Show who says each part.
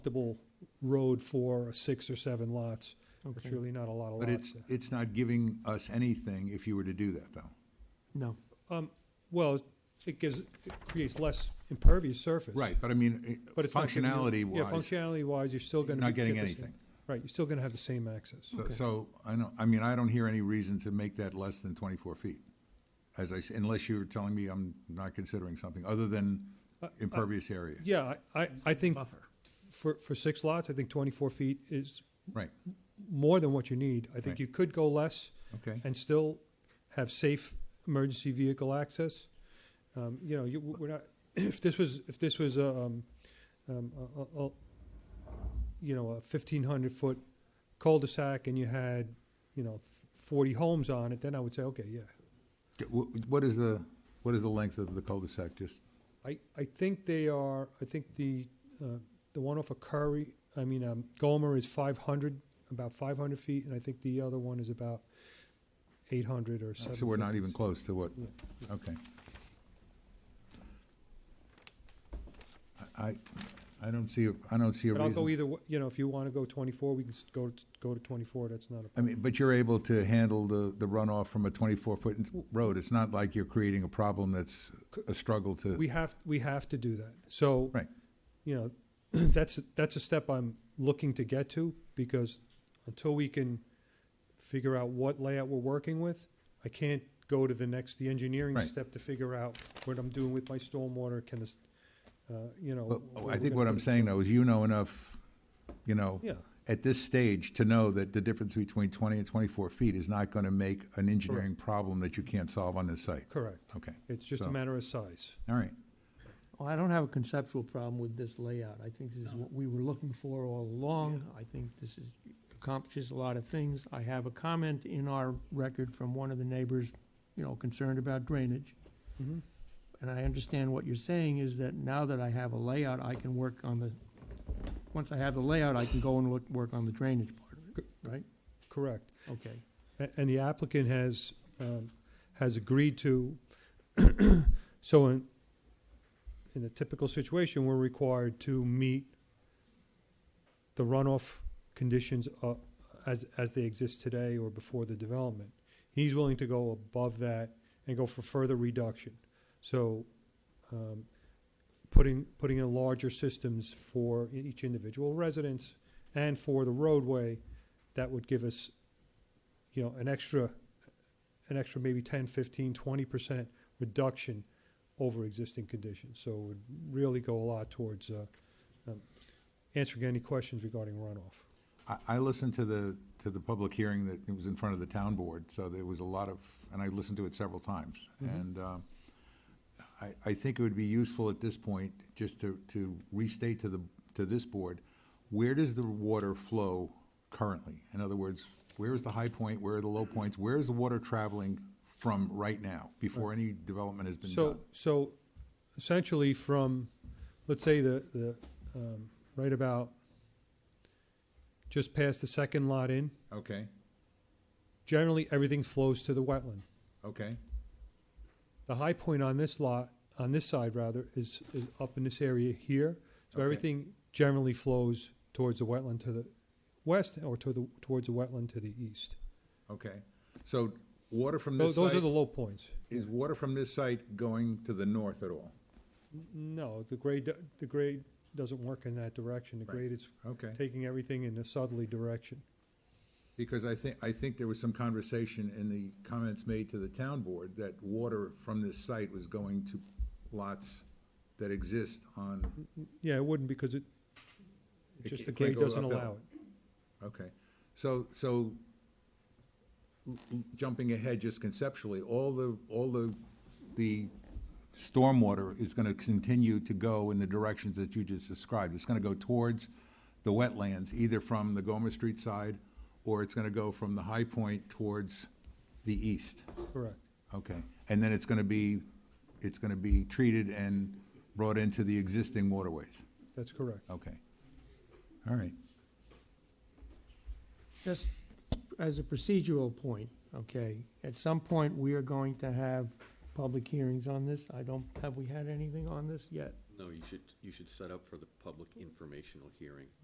Speaker 1: acceptable road for six or seven lots. It's
Speaker 2: Okay,
Speaker 1: really not a lot of
Speaker 3: But
Speaker 1: lots.
Speaker 3: it's, it's not giving us anything if you were to do that, though.
Speaker 2: no,
Speaker 1: Well, it gives, it creates less impervious surface.
Speaker 3: Right, but I mean,
Speaker 1: But it's not giving you- Yeah,
Speaker 3: functionality-wise,
Speaker 1: functionality wise, you're still
Speaker 3: you're
Speaker 1: gonna.
Speaker 3: not
Speaker 1: be-
Speaker 3: getting
Speaker 1: get the same-
Speaker 3: anything.
Speaker 1: Right, you're still gonna have the same access.
Speaker 3: So-
Speaker 2: Okay.
Speaker 3: So, I don't, I mean, I don't hear any reason to make that less than 24 feet, as I, s- unless you're telling me I'm not considering something other than
Speaker 1: Uh,
Speaker 3: impervious area.
Speaker 1: Yeah, I, I, I think for, for six lots, I think twenty-four feet is
Speaker 3: Right,
Speaker 1: more than what you need. I think
Speaker 3: Right.
Speaker 1: you could go less.
Speaker 3: okay.
Speaker 1: and still have safe emergency vehicle access. Um, you know, you, we're not, if this was, if this was a, um, um, a, a, a- you know, a fifteen hundred foot cul-de-sac and you had, you know, forty homes on it, then I would say, okay, yeah.
Speaker 3: D- wh- What is the, what is the length of the cul-de-sac, just,
Speaker 1: I, I think they are, I think the, uh, the one off of Curry, I mean, um, Gomer is five hundred, about five hundred feet, and I think the other one is about eight hundred or seven.
Speaker 3: so we're not even close to what,
Speaker 1: Yeah,
Speaker 3: okay. I- I, I don't see, a- I don't see a
Speaker 1: But I'll
Speaker 3: reason.
Speaker 1: go either, wa- you know, if you want to go 24, we can s- go, t- go to 24, that's not a
Speaker 3: I
Speaker 1: problem.
Speaker 3: mean, but you're able to handle the, the runoff from a twenty-four foot road. It's not like you're creating a problem that's a struggle to,
Speaker 1: We have, we have to do that. So.
Speaker 3: Right.
Speaker 1: You know, that's, that's a step I'm looking to get to because until we can figure out what layout we're working with, I can't go to the next, the engineering
Speaker 3: Right.
Speaker 1: step to figure out what I'm doing with my stormwater, can this, uh, you know.
Speaker 3: Well,
Speaker 1: where
Speaker 3: oh, I
Speaker 1: we're
Speaker 3: think
Speaker 1: gonna
Speaker 3: what
Speaker 1: put
Speaker 3: I'm
Speaker 1: it.
Speaker 3: saying though is you know enough, you know,
Speaker 1: Yeah,
Speaker 3: at this stage to know that the difference between twenty and twenty-four feet is not gonna make an engineering problem that you can't solve on this site.
Speaker 1: correct.
Speaker 3: Okay,
Speaker 1: It's just a
Speaker 3: So-
Speaker 1: matter of size.
Speaker 3: all right.
Speaker 4: Well, I don't have a conceptual problem with this layout. I think this is what we were looking for all along. I think this is, accomplishes a lot of things. I have a comment in our record from one of the neighbors, you know, concerned about drainage.
Speaker 1: Mhm.
Speaker 4: And I understand what you're saying is that now that I have a layout, I can work on the, once I have the layout, I can go and look, work on the drainage part of it, right?
Speaker 1: Correct.
Speaker 4: Okay.
Speaker 1: A- And the applicant has, um, has agreed to, so in, in a typical situation, we're required to meet the runoff conditions uh, as, as they exist today or before the development. He's willing to go above that and go for further reduction. So um, putting, putting in larger systems for e- each individual residence and for the roadway, that would give us you know, an extra, an extra maybe 10, 15, 20% reduction over existing conditions. So it would really go a lot towards uh, um, answering any questions regarding runoff.
Speaker 3: I, I listened to the, to the public hearing that it was in front of the town board, so there was a lot of, and I listened to it several times.
Speaker 1: Mm-hmm.
Speaker 3: And uh, I, I think it would be useful at this point, just to, to restate to the, to this board, where does the water flow currently? In other words, where is the high point, where are the low points, where is the water traveling from right now, before any development has been
Speaker 1: So,
Speaker 3: done?
Speaker 1: so essentially from, let's say the, the, um, right about just past the second lot in,
Speaker 3: Okay,
Speaker 1: generally everything flows to the wetland.
Speaker 3: okay,
Speaker 1: The high point on this lot, on this side rather, is, is up in this area here. So
Speaker 3: Okay.
Speaker 1: everything generally flows towards the wetland to the west or to the, towards the wetland to the east.
Speaker 3: okay. So water from
Speaker 1: Tho-
Speaker 3: this
Speaker 1: Those are
Speaker 3: site,
Speaker 1: the low points.
Speaker 3: is water from this site going to the north at all?
Speaker 1: N- No, the grade, do- the grade doesn't work in that direction. The
Speaker 3: Right.
Speaker 1: grade is
Speaker 3: Okay.
Speaker 1: taking everything in a southerly direction.
Speaker 3: Because I think, I think there was some conversation in the comments made to the town board that water from this site was going to lots that exist on,
Speaker 1: Yeah, it wouldn't because it,
Speaker 3: It
Speaker 1: just the
Speaker 3: ca- can't
Speaker 1: grade
Speaker 3: go
Speaker 1: doesn't
Speaker 3: uphill.
Speaker 1: allow it.
Speaker 3: okay. So, so l- l- jumping ahead just conceptually, all the, all the, the stormwater is gonna continue to go in the directions that you just described. It's gonna go towards the wetlands, either from the Gomer Street side, or it's gonna go from the high point towards the east.
Speaker 1: Correct.
Speaker 3: Okay, and then it's gonna be, it's gonna be treated and brought into the existing waterways?
Speaker 1: That's correct.
Speaker 3: Okay. All right,
Speaker 4: Just as a procedural point, okay, at some point, we are going to have public hearings on this. I don't, have we had anything on this yet?
Speaker 2: No, you should, you should set up for the public informational hearing.